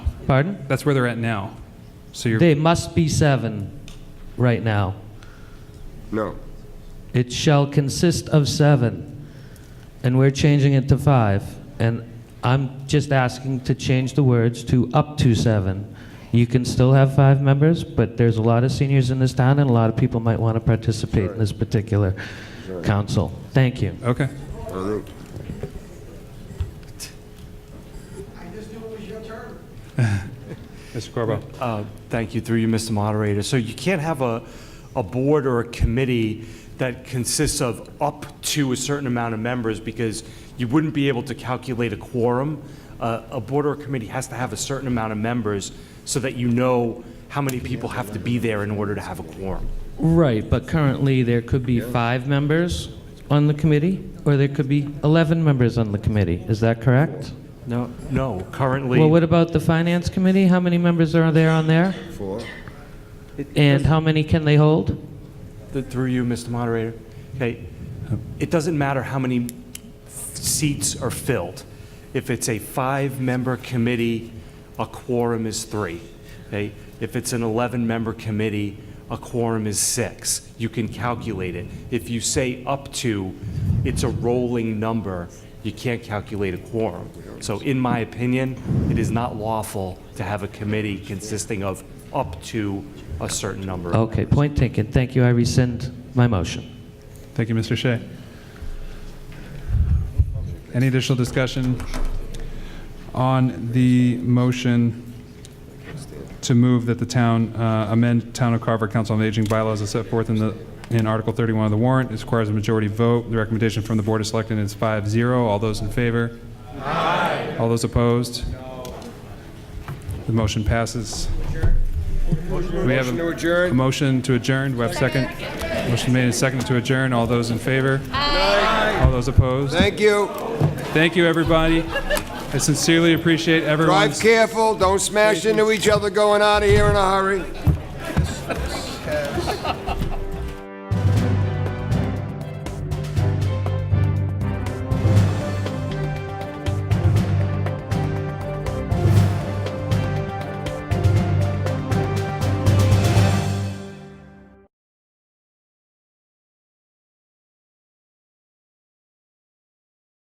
Pardon? That's where they're at now. So you're They must be seven right now. No. It shall consist of seven, and we're changing it to five. And I'm just asking to change the words to up to seven. You can still have five members, but there's a lot of seniors in this town, and a lot of people might want to participate in this particular council. Thank you. okay. I think. Mr. Corbo. Uh, Thank you, through you, Mr. Moderator. So you can't have a, a board or a committee that consists of up to a certain amount of members because you wouldn't be able to calculate a quorum. Uh, A board or a committee has to have a certain amount of members so that you know how many people have to be there in order to have a quorum. Right, but currently, there could be five members on the committee, or there could be 11 members on the committee. Is that correct? No. No, currently. Well, what about the Finance Committee? How many members are there on there? Four. And how many can they hold? Th- Through you, Mr. Moderator. Okay, it doesn't matter how many seats are filled. If it's a five-member committee, a quorum is three. Okay, if it's an 11-member committee, a quorum is six. You can calculate it. If you say up to, it's a rolling number, you can't calculate a quorum. So in my opinion, it is not lawful to have a committee consisting of up to a certain number of Okay, point taken. Thank you. I rescind my motion. Thank you, Mr. Shea. Any additional discussion on the motion to move that the town uh, amend Town of Carver Council on Aging bylaws as set forth in the, in Article 31 of the warrant? It requires a majority vote. The recommendation from the Board of Selectmen is 5-0. All those in favor? Aye. All those opposed? No. The motion passes. We have Motion to a- a adjourn? motion to adjourn. Do we have a second? Motion made and seconded to adjourn. All those in favor? Aye. All those opposed? Thank you. Thank you, everybody. I sincerely appreciate Drive everyone's careful, don't smash into each other going out of here in a hurry.